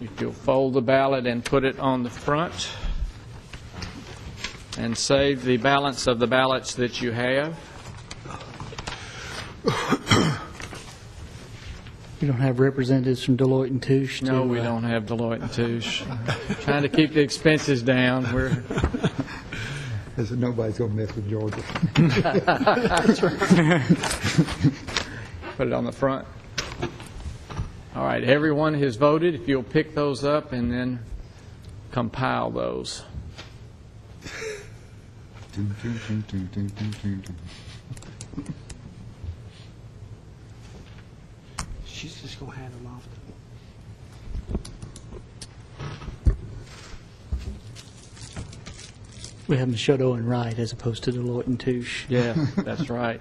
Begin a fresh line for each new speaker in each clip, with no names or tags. If you'll fold the ballot and put it on the front, and save the balance of the ballots that you have.
You don't have representatives from Deloitte and Touche?
No,
to,
we
uh,
don't have Deloitte and Touche. Trying to keep the expenses down. We're,
This is- Nobody's going to mess with Georgia.
put it on the front. All right, everyone has voted. If you'll pick those up and then compile those.
She's just gonna hand them off.
We have Machado and Wright as opposed to Deloitte and Touche.
Yeah, that's right.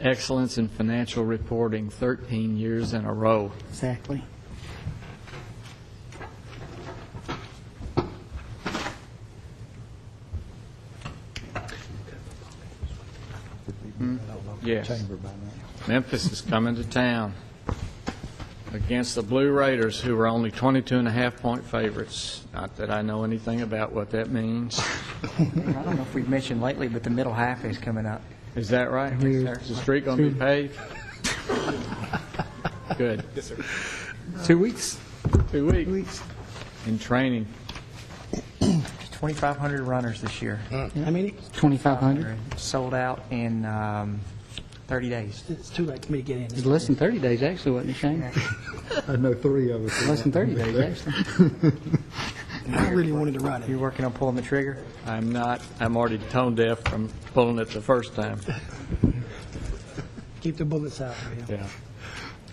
Excellence in financial reporting, 13 years in a row.
Exactly.
Yes,
Chamber by now.
Memphis is coming to town against the Blue Raiders, who are only 22 and a half point favorites. Not that I know anything about what that means.
I don't know if we've mentioned lately, but the middle half is coming up.
Is that right? Is the street going to be paved? Good.
Two weeks?
Two weeks in training.
There's 2,500 runners this year,
How many?
2,500?
sold out in um, 30 days.
It's too late for me to get in.
It's less than 30 days, actually, wasn't it, Shane?
I know three of us.
Less than 30 days, actually.
I really wanted to run
You're
it.
working on pulling the trigger?
I'm not, I'm already tone deaf from pulling it the first time.
Keep the bullets out for him.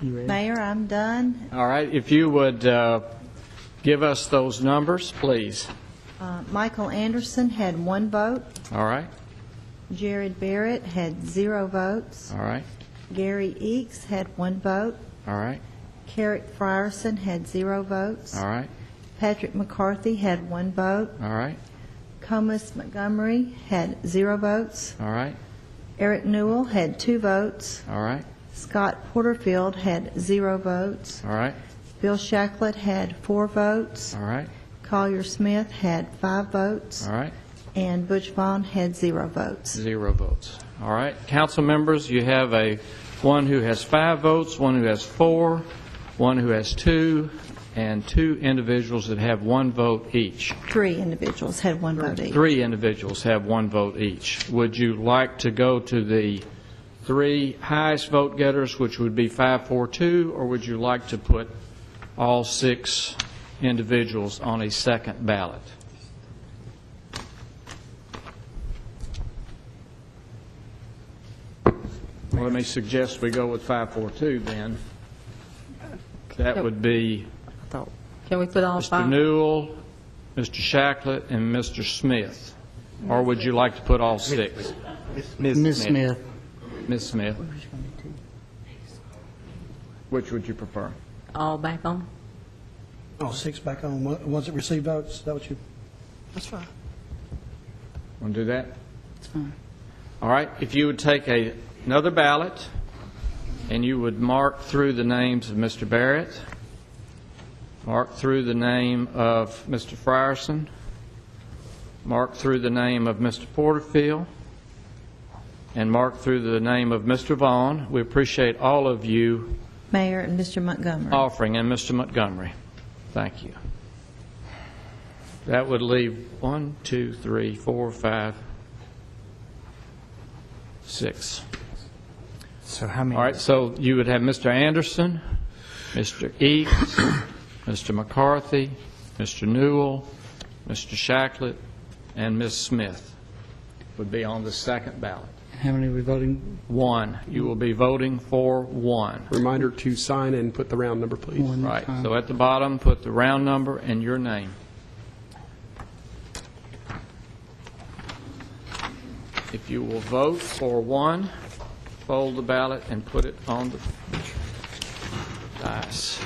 Yeah.
Mayor, I'm done.
All right, if you would uh, give us those numbers, please.
Uh, Michael Anderson had one vote.
All right,
Jared Barrett had zero votes.
all right,
Gary Eeks had one vote.
all right,
Carrick Frierson had zero votes.
all right,
Patrick McCarthy had one vote.
all right,
Comus Montgomery had zero votes.
all right,
Eric Newell had two votes.
all right,
Scott Porterfield had zero votes.
all right,
Bill Shacklet had four votes.
all right,
Collier Smith had five votes.
all right,
And Butch Vaughn had zero votes.
zero votes. All right, council members, you have a, one who has five votes, one who has four, one who has two, and two individuals that have one vote each.
Three individuals had one vote each.
Three individuals have one vote each. Would you like to go to the three highest vote getters, which would be 542, or would you like to put all six individuals on a second ballot? Well, Let me suggest we go with 542 then. That would be
Can we put all
Mr.
five?
Newell, Mr. Shacklet, and Mr. Smith? Or would you like to put all six?
Ms. Smith,
Ms. Smith? Which would you prefer?
All back on?
Oh, six back on, One- ones that receive votes, is that what you? That's fine.
Want to do that? All right, if you would take a- another ballot, and you would mark through the names of Mr. Barrett, mark through the name of Mr. Frierson, mark through the name of Mr. Porterfield, and mark through the name of Mr. Vaughn. We appreciate all of you
Mayor and Mr. Montgomery.
offering, and Mr. Montgomery. Thank you. That would leave one, two, three, four, five, six.
So how many?
All right, so you would have Mr. Anderson, Mr. Eads, Mr. McCarthy, Mr. Newell, Mr. Shacklet, and Ms. Smith would be on the second ballot.
how many are we voting?
One, you will be voting for one.
Reminder to sign and put the round number, please.
One
Right,
time.
so at the bottom, put the round number and your name. If you will vote for one, fold the ballot and put it on the dice.